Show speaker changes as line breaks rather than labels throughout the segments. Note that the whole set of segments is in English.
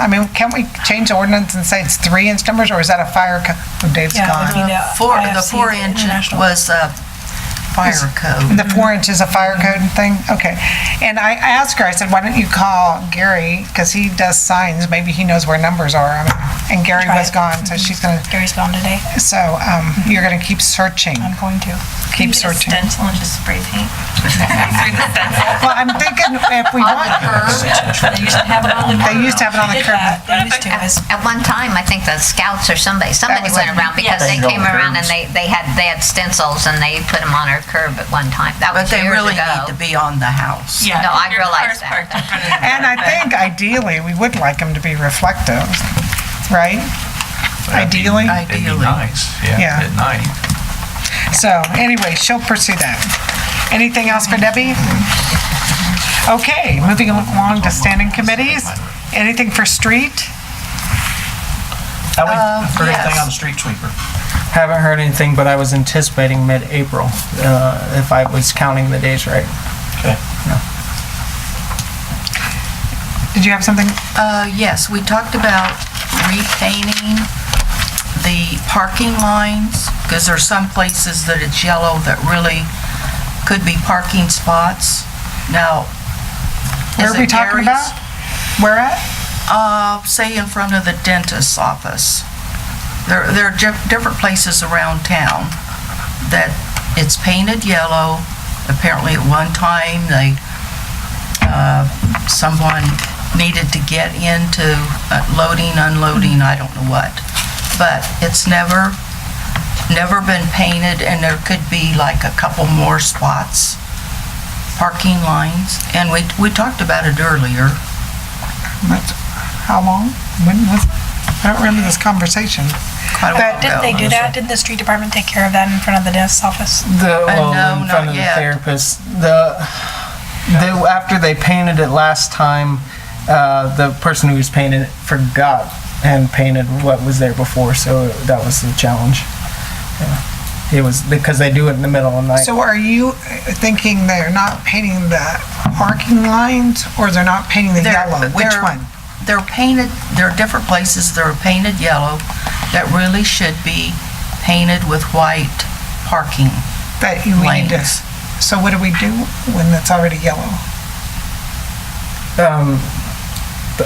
I mean, can't we change the ordinance and say it's three inch numbers, or is that a fire code? Oh, Dave's
Yeah, it'd
gone.
be the
Four, the
IFC,
four inch
international.
was uh, fire code.
The four inch is a fire code thing? Okay. And I I asked her, I said, why don't you call Gary, because he does signs, maybe he knows where numbers are. I mean, And Gary
Try
was
it.
gone, so she's gonna,
Gary's gone today.
so um, you're gonna keep searching.
I'm going to.
Keep searching.
Get a stencil and just spray paint.
Well, I'm thinking if we want,
Uh-huh.
They used to have it on the
they used to have it on the
Did
curb.
that. They used to. It's-
At one time, I think the scouts or somebody, somebody
was
went
it.
around because
Yes.
they
Things on
came
the
around and
curbs.
they, they had, they had stencils and they put them on our curb at one time. That
But
was
they
years
really need to
ago.
be on the house.
Yeah,
No, I
your
realize
car's
that.
parked in front of the-
And I think ideally, we would like them to be reflective, right? Ideally?
It'd be
Ideally.
nice,
Yeah.
yeah, at night.
So anyway, she'll pursue that. Anything else for Debbie? Okay, moving along to standing committees. Anything for street?
Ellie,
Uh,
heard
yes.
anything on the street sweeper?
Haven't heard anything, but I was anticipating mid-April, uh, if I was counting the days right.
Okay.
Did you have something?
Uh, Yes, we talked about repainting the parking lines, because there's some places that it's yellow that really could be parking spots. Now,
Where
is
are we
it
talking
Gary's?
about? Where at?
Uh, say in front of the dentist's office. There, there are di- different places around town that it's painted yellow. Apparently at one time, they, uh, someone needed to get into uh, loading, unloading, I don't know what. But it's never, never been painted and there could be like a couple more spots, parking lines. And we, we talked about it earlier.
That's- How long? When was it? I don't remember this conversation.
quite a while
Didn't
ago.
they do that? Didn't the street department take care of that in front of the dentist's office?
The,
Uh,
well,
no,
in front
not
of the
yet.
therapist, the, they, after they painted it last time, uh, the person who was painting it forgot and painted what was there before, so that was the challenge. Yeah. It was, because they do it in the middle of the night.
So are you uh, thinking they're not painting the parking lines or they're not painting the
They're-
yellow? Which
they're-
one?
They're painted, there are different places that are painted yellow that really should be painted with white parking
That you we need to,
lanes.
so what do we do when it's already yellow?
Um,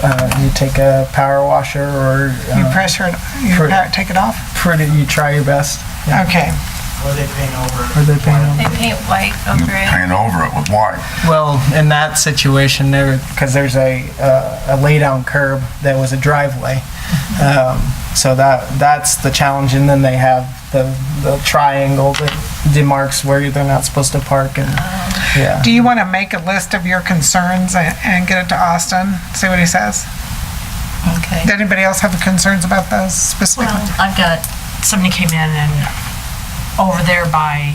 uh, you take a power washer or,
You
uh,
pressure it, you
for-
pa- take it off?
pretty, you try your best. Yeah.
Okay.
What do they paint over?
Or they paint them.
They paint white over it.
paint over it with white.
Well, in that situation, there because there's a uh, a lay down curb that was a driveway, um, so that that's the challenge. And then they have the the triangle that demarks where they're not supposed to park, and yeah,
Do you want to make a list of your concerns a- and get it to Austin? See what he says?
Okay.
Did anybody else have concerns about those specifically?
Well, I've got, somebody came in and over there by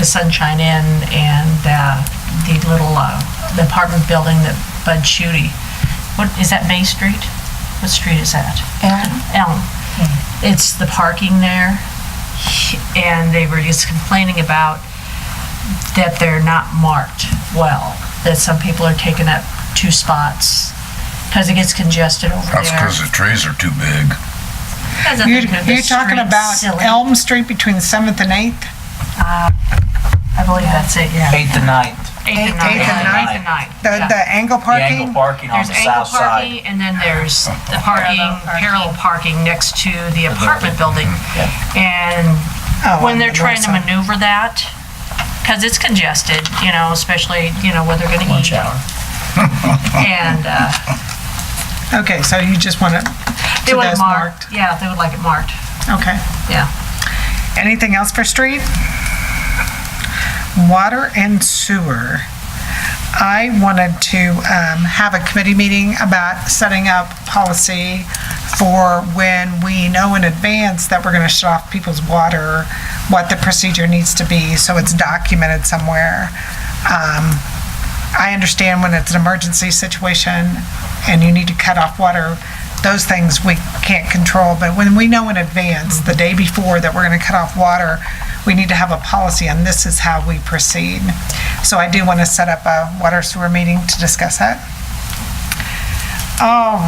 the Sunshine Inn and uh, the little uh, the apartment building that Bud Shooty, what, is that Bay Street? What street is that?
Elm.
Elm. It's the parking there, and they were just complaining about that they're not marked well, that some people are taking up two spots, because it gets congested over there.
That's because the trees are too big.
That's a
You're,
thing of the
you're talking
street,
about
silly.
Elm Street between 7th and 8th?
I believe that's it, yeah.
Eighth and ninth,
eighth
Eighth
and ninth.
Eighth and ninth.
The,
yeah.
the angle
the angle
parking?
parking on
There's
the
angle
south side.
parking, and then there's the parking, parallel parking next to the apartment building. And
Oh, on
when
the
they're trying to
north side.
maneuver that, because it's congested, you know, especially, you know, where they're gonna eat.
Lunch hour.
And, uh,
Okay, so you just want it,
they
So
want
that's
it marked. Yeah, they would like it marked,
okay.
yeah.
Anything else for street? Water and sewer. I wanted to um, have a committee meeting about setting up policy for when we know in advance that we're going to shut off people's water, what the procedure needs to be, so it's documented somewhere. Um, I understand when it's an emergency situation and you need to cut off water, those things we can't control, but when we know in advance, the day before, that we're going to cut off water, we need to have a policy and this is how we proceed. So I do want to set up a water sewer meeting to discuss that. All